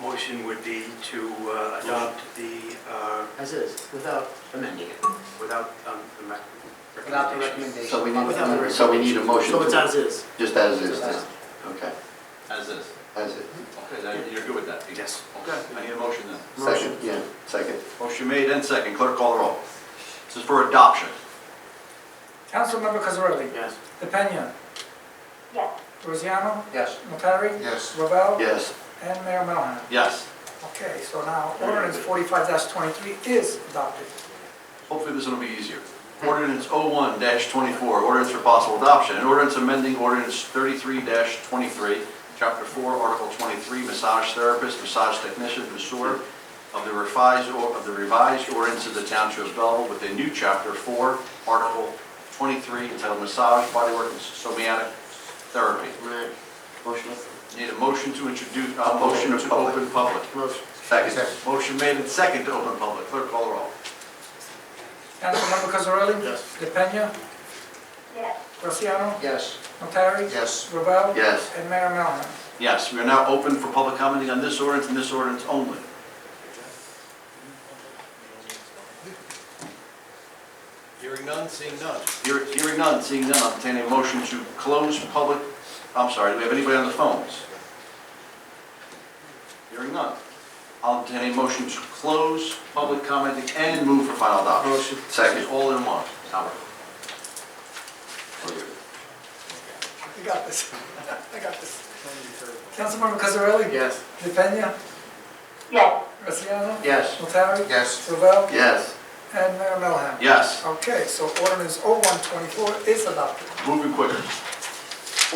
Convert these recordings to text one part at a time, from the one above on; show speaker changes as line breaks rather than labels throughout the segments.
motion would be to uh, adopt the, uh,
As is, without amending it,
without um, the rec-
without the
recommendation.
recommendation.
So we
Without the
need, so we need a motion,
So it's
to-
as is.
just as is,
Just as-
then. okay,
As is.
as is.
Okay, then you're good with that, Pete?
Yes.
Okay, I need a motion then.
Second, yeah, second.
Motion made and second, clerk call the roll. This is for adoption.
Councilmember Cosarelli?
Yes.
DePena?
yes,
Rosiano?
Yes.
Notari?
Yes.
Ravel?
Yes,
And Mayor Melham.
Yes.
Okay, so now ordinance forty-five twenty-three is adopted.
Hopefully this one will be easier. Ordinance 01-24, ordinance for possible adoption, an ordinance amending ordinance 33-23, Chapter 4, Article 23, massage therapist, massage technician, masseur of the revised, or- of the revised ordinance of the Township of Belleville with a new Chapter 4, Article 23, entitled Massage Bodywork and Somatic Therapy.
Right. Motion.
Need a motion to introduce, a motion to open public.
Motion.
Second. Motion made and second to open public. Clerk call the roll.
Councilmember Cosarelli?
Yes.
DePena?
yes,
Rosiano?
Yes.
Notari?
Yes.
Ravel?
yes.
And Mayor Melham.
Yes, we are now open for public commenting on this ordinance and this ordinance only.
Hearing none, seeing none.
Hear- Hearing none, seeing none, I'll entertain a motion to close public, I'm sorry, do we have anybody on the phones? Hearing none. I'll entertain a motion to close public commenting and move for final adoption.
Motion.
Second. This is All in one. Howard. For you.
I got this. I got this. Councilmember Cosarelli?
Yes.
DePena?
yes,
Rosiano?
Yes.
Notari?
Yes.
Ravel?
Yes,
And Mayor Melham.
Yes.
Okay, so ordinance 0124 is adopted.
Moving quicker.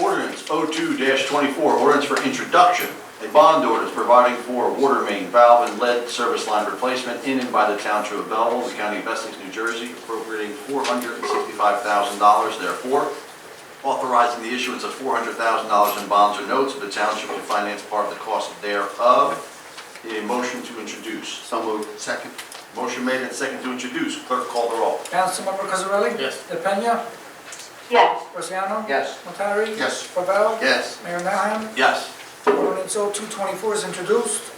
Ordinance 02-24, ordinance for introduction, a bond ordinance providing for water main valve and lead service line replacement in and by the township of Belleville, the county of Essex, New Jersey, appropriating $465,000 therefore, authorizing the issuance of $400,000 in bonds or notes of the township to finance part of the cost thereof. Need a motion to introduce.
so moved.
Second.
Motion made and second to introduce. Clerk call the roll.
Councilmember Cosarelli?
Yes.
DePena?
yes,
Rosiano?
Yes.
Notari?
Yes.
Ravel?
Yes,
Mayor Melham.
Yes.
Ordinance 0224 is introduced.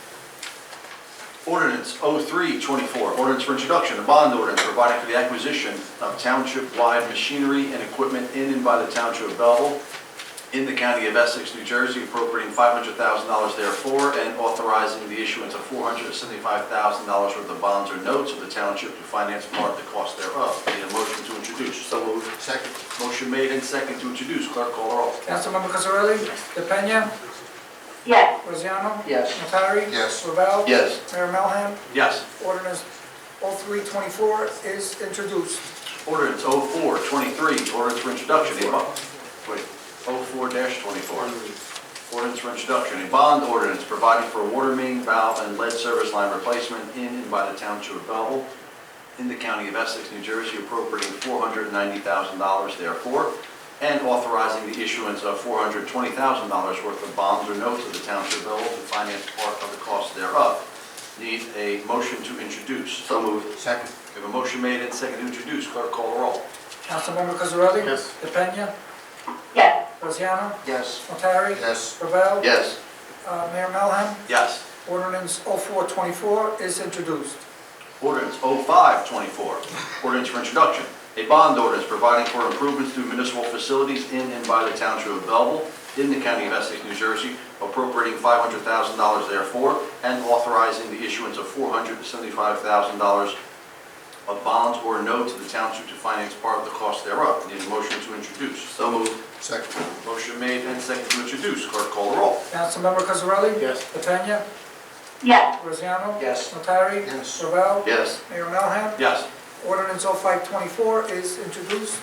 Ordinance 0324, ordinance for introduction, a bond ordinance providing for the acquisition of township-wide machinery and equipment in and by the township of Belleville in the county of Essex, New Jersey, appropriating $500,000 therefore, and authorizing the issuance of $475,000 worth of bonds or notes of the township to finance part of the cost thereof. Need a motion to introduce.
so moved.
Second.
Motion made and second to introduce. Clerk call the roll.
Councilmember Cosarelli? DePena?
yes,
Rosiano?
Yes.
Notari?
Yes.
Ravel?
Yes,
Mayor Melham.
Yes.
Ordinance 0324 is introduced.
Ordinance 0423, ordinance for introduction, a bond, wait, 04-24. Ordinance for introduction, a bond ordinance providing for water main valve and lead service line replacement in and by the township of Belleville in the county of Essex, New Jersey, appropriating $490,000 therefore, and authorizing the issuance of $420,000 worth of bonds or notes of the township of Belleville to finance part of the cost thereof. Need a motion to introduce.
so moved.
Second.
We have a motion made and seconded to introduce. Clerk call the roll.
Councilmember Cosarelli?
Yes.
DePena?
yes,
Rosiano?
Yes.
Notari?
Yes.
Ravel?
Yes,
Uh, Mayor Melham.
Yes.
Ordinance 0424 is introduced.
Ordinance 0524, ordinance for introduction. A bond ordinance providing for improvements to municipal facilities in and by the township of Belleville in the county of Essex, New Jersey, appropriating $500,000 therefore, and authorizing the issuance of $475,000 of bonds or notes of the township to finance part of the cost thereof. Need a motion to introduce.
so moved.
Second.
Motion made and seconded to introduce. Clerk call the roll.
Councilmember Cosarelli?
Yes.
DePena?
yes,
Rosiano?
Yes.
Notari?
Yes.
Ravel?
Yes,
Mayor Melham.
Yes.
Ordinance 0524 is introduced.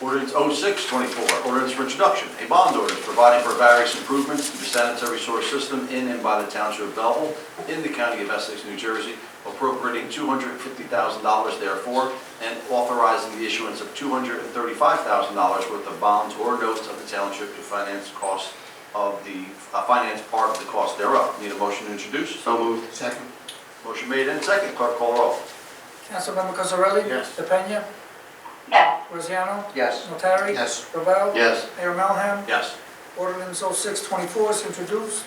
Ordinance 0624, ordinance for introduction, a bond ordinance providing for various improvements to the sanitary sewer system in and by the township of Belleville in the county of Essex, New Jersey, appropriating $250,000 therefore, and authorizing the issuance of $235,000 worth of bonds or notes of the township to finance costs of the, uh, finance part of the cost thereof. Need a motion to introduce?
so moved.
Second.
Motion made and second, clerk call the roll.
Councilmember Cosarelli?
Yes.
DePena?
yes,
Rosiano?
Yes.
Notari?
Yes.
Ravel?
Yes,
Mayor Melham.
Yes.
Ordinance 0624 is introduced.